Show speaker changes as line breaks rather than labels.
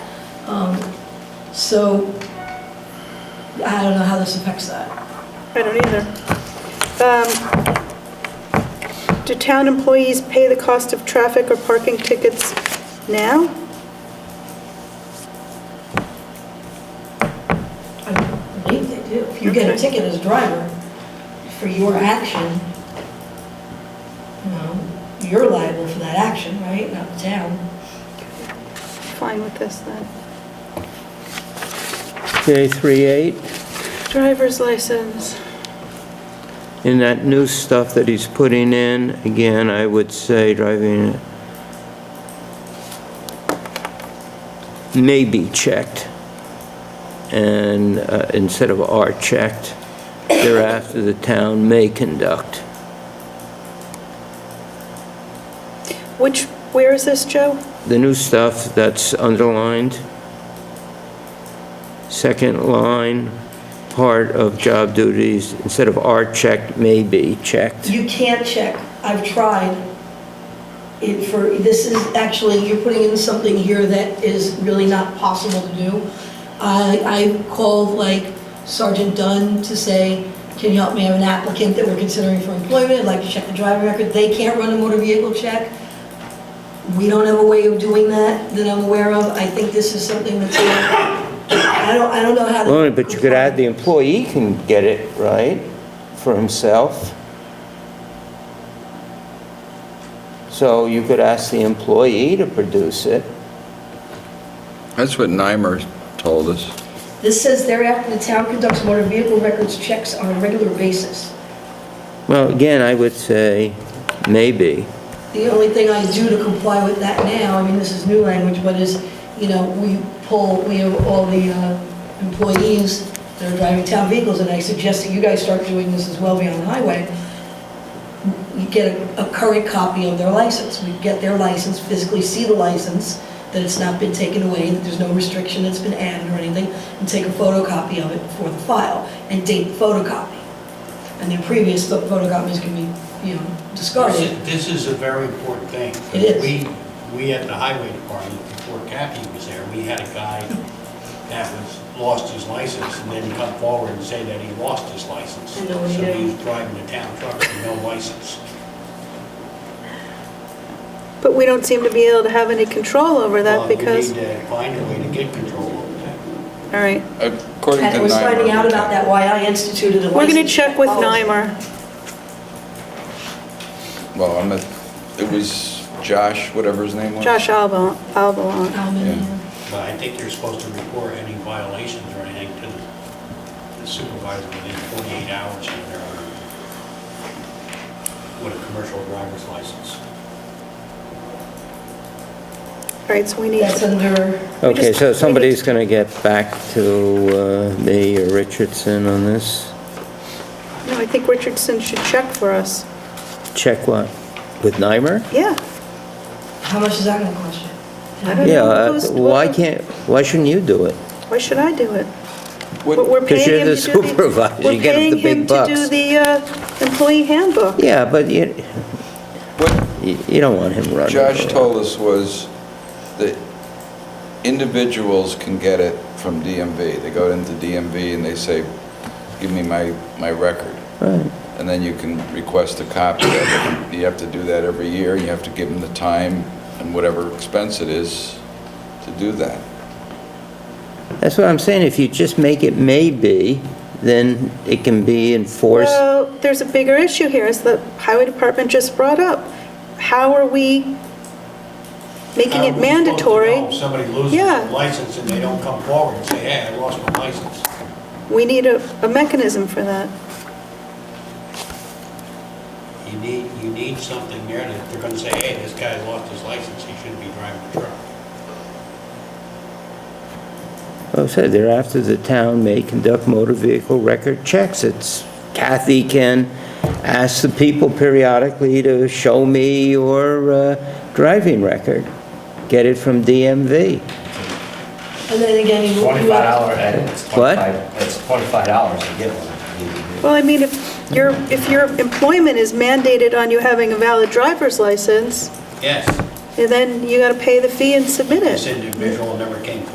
Um, So, I don't know how this affects that.
I don't either. Um, Do town employees pay the cost of traffic or parking tickets now?
I believe they do. If you get a
Okay.
ticket as a driver for your action, you know, you're liable for that action, right? Not the town.
Fine with this then.
J38,
Driver's license.
in that new stuff that he's putting in, again, I would say driving may be checked, and uh, instead of are checked, thereafter the town may conduct.
Which, where is this, Joe?
The new stuff that's underlined, second line, part of job duties, instead of are checked, may be checked.
You can't check. I've tried it for, this is actually, you're putting in something here that is really not possible to do. I, I called like Sergeant Dunn to say, can you help me? I have an applicant that we're considering for employment. I'd like to check the driver record. They can't run a motor vehicle check. We don't have a way of doing that that I'm aware of. I think this is something that's, I don't, I don't know how to.
Well, but you could add, the employee can get it, right, for himself? So you could ask the employee to produce it.
That's what Nimer told us.
This says thereafter, the town conducts motor vehicle records checks on a regular basis.
Well, again, I would say maybe.
The only thing I do to comply with that now, I mean, this is new language, but is, you know, we pull, we have all the uh, employees that are driving town vehicles, and I suggest that you guys start doing this as well beyond the highway. You get a- a current copy of their license. We get their license, physically see the license, that it's not been taken away, that there's no restriction that's been added or anything, and take a photocopy of it for the file, and date the photocopy. And their previous pho- photocopies can be, you know, discarded.
This is- This is a very important thing. 'cause
It is.
We, we at the highway department, before Kathy was there, we had a guy that was, lost his license, and then he come forward and say that he lost his license.
And no one
So he
knew.
was driving a town truck with no license.
But we don't seem to be able to have any control over
Well,
that because,
We need to find a way to get control over that.
all right.
According to
And we're finding
Nimer,
out about that, why I instituted a license.
We're going to check with
policy.
Nimer.
well, I'm a, it was Josh, whatever his name was.
Josh Alba- Albalon.
How many?
Yeah.
But I think you're supposed to report any violations or anything to the supervisor within 48 hours of their, with a commercial driver's license.
All right, so we need,
That's under,
Okay, so somebody's going to get back to uh, me or Richardson on this.
no, I think Richardson should check for us.
Check what? With Nimer?
Yeah.
how much is that gonna cost you?
I don't
Yeah,
know
uh,
who's-
why can't, why shouldn't you do it?
Why should I do it?
What-
But we're
'Cause
paying
you're
him
the
to do the-
supervisor, you get the big
We're paying him to do
bucks.
the uh, employee handbook.
Yeah, but you,
What
you you don't want him running.
Josh
around.
told us was that individuals can get it from DMV. They go into DMV and they say, give me my, my record.
Right.
And then you can request a copy of it. You have to do that every year, you have to give them the time and whatever expense it is to do that.
That's what I'm saying, if you just make it maybe, then it can be enforced.
Well, there's a bigger issue here, as the highway department just brought up. How are we making
How
it
are we supposed to know if
mandatory?
Somebody loses
Yeah.
their license and they don't come forward and say, hey, I lost my license.
We need a, a mechanism for that.
You need, you need something there that they're gonna say, hey, this guy lost his license, he shouldn't be driving a truck.
Well, I said, Oh, thereafter, the town may conduct motor vehicle record checks. It's Kathy can ask the people periodically to show me your uh, driving record. Get it from DMV.
And then again, you. you have-
Twenty-five dollar, it's
What?
twenty-five, it's twenty-five dollars to get one.
Well, I mean, if your, if your employment is mandated on you having a valid driver's license,
Yes,
and then you gotta pay the fee and submit it.
this individual never came forward